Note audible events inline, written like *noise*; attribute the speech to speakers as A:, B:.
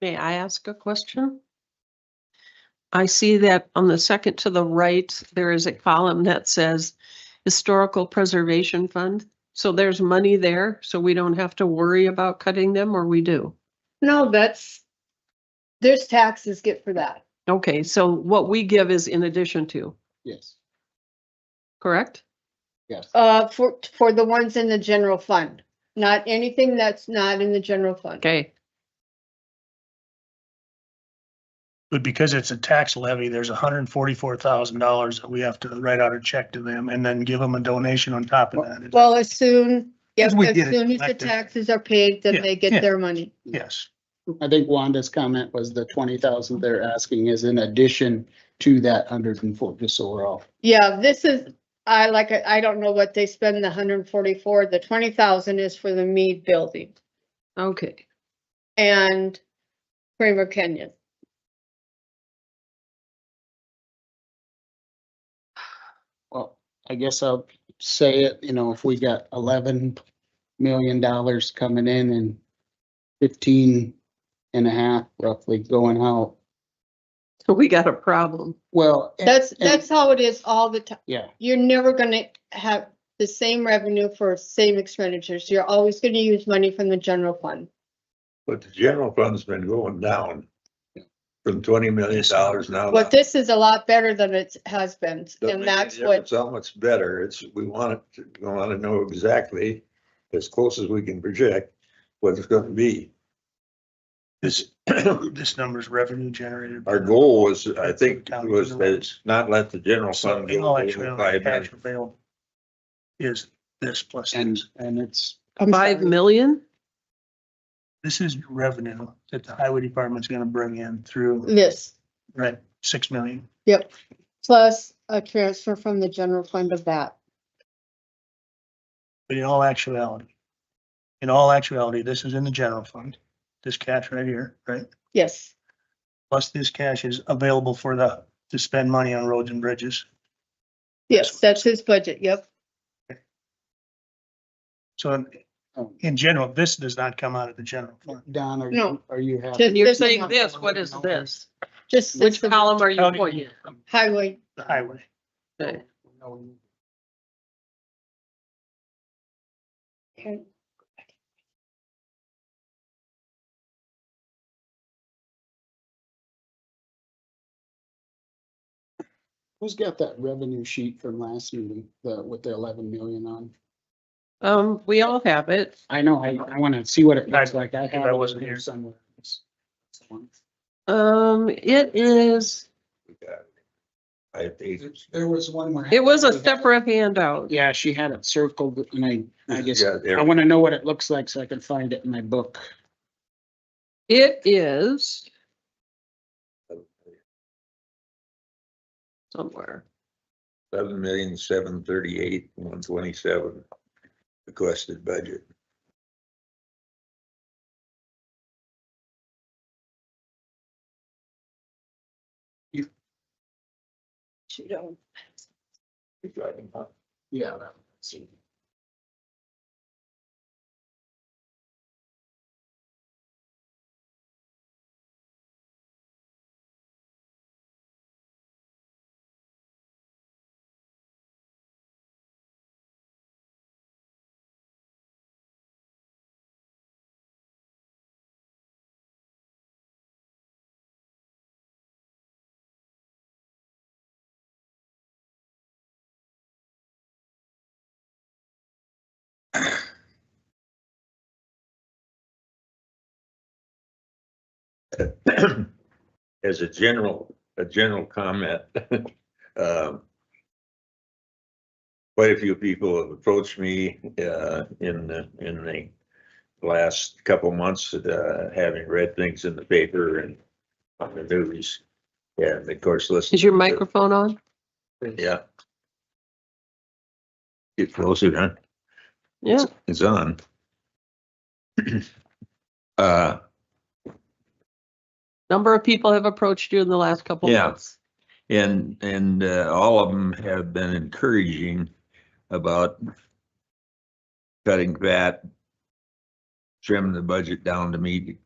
A: May I ask a question? I see that on the second to the right, there is a column that says Historical Preservation Fund. So there's money there, so we don't have to worry about cutting them, or we do?
B: No, that's, there's taxes get for that.
A: Okay, so what we give is in addition to,
C: Yes,
A: correct?
C: yes.
B: Uh, for, for the ones in the general fund, not anything that's not in the general fund.
A: Okay,
D: But because it's a tax levy, there's hundred and forty-four thousand dollars that we have to write out a check to them and then give them a donation on top of that.
B: Well, as soon, yeah, as
D: As we get it
B: soon as the
D: collected.
B: taxes are paid,
D: Yeah,
B: then they
D: yeah.
B: get their money.
D: Yes,
C: I think Wanda's comment was the twenty thousand they're asking is in addition to that hundred and four, just so we're all.
B: Yeah, this is, I like, it- I don't know what they spend the hundred and forty-four, the twenty thousand is for the Mead Building
A: okay.
B: and Kramer Canyon.
C: Well, I guess I'll say it, you know, if we got eleven million dollars coming in and fifteen and a half roughly going out,
A: So we got a problem.
C: well. and-
B: That's,
C: and-
B: that's how it is all the time.
C: Yeah,
B: You're never gonna have the same revenue for same expenditures. You're always gonna use money from the general fund.
E: But the general fund's been going down from twenty million dollars now.
B: But this is a lot better than it has been,
E: Doesn't
B: and
E: Oh, make any
B: that's
E: difference
B: what,
E: How much better, it's, we want it, to- we want to know exactly, as close as we can project, what it's gonna be.
D: this, *coughs* this number's revenue generated.
E: Our goal was, I think, was that it's not let the general fund. go
D: All actually,
E: over five
D: cash
E: million.
D: available is this plus,
C: and,
D: this.
C: and it's,
B: I'm
A: Five
B: sorry.
A: million?
D: this is revenue that the highway department's gonna bring in through,
B: this,
D: right, six million.
B: yep. Plus a transfer from the general fund of that.
D: But in all actuality, in all actuality, this is in the general fund, this cash right here, right?
B: Yes,
D: plus this cash is available for the, to spend money on roads and bridges.
B: yes, that's his budget, yep.
D: So in,
C: um,
D: in general, this does not come out of the general fund.
C: Don, are
B: No.
C: you, are you happy?
B: Just-
A: And you're
B: This is
A: saying
B: not-
A: this, what is this?
B: Just
A: Which
B: the
A: column are you pointing?
B: highway,
D: The highway.
A: at?
C: No. Who's got that revenue sheet from last meeting, the, with the eleven million on?
A: Um, we all have it.
C: I know, I, I wanna see what it looks
D: I-
C: like. I
D: I
C: have it
D: wasn't
C: here
D: here.
C: somewhere.
A: Um, it is,
E: We got it. I think.
C: There was one where.
A: it was a separate handout.
C: Yeah, she had it circled and I, I just,
E: Yeah, there-
C: I wanna know what it looks like so I can find it in my book.
A: It is somewhere.
E: Seven million, seven thirty-eight, one twenty-seven requested budget.
C: Yeah. that- see.
E: *coughs* as a general, a general comment, *laughs* um, quite a few people have approached me, uh, in the, in the last couple months, uh, having read things in the paper and on the news. Yeah, and of course, listen.
A: Is your microphone on?
E: Yeah. Get closer, huh?
A: Yeah,
E: is on. *coughs* Uh,
A: number of people have approached you in the last couple of
E: Yeah.
A: months.
E: and, and, uh, all of them have been encouraging about cutting fat, trimming the budget down to meet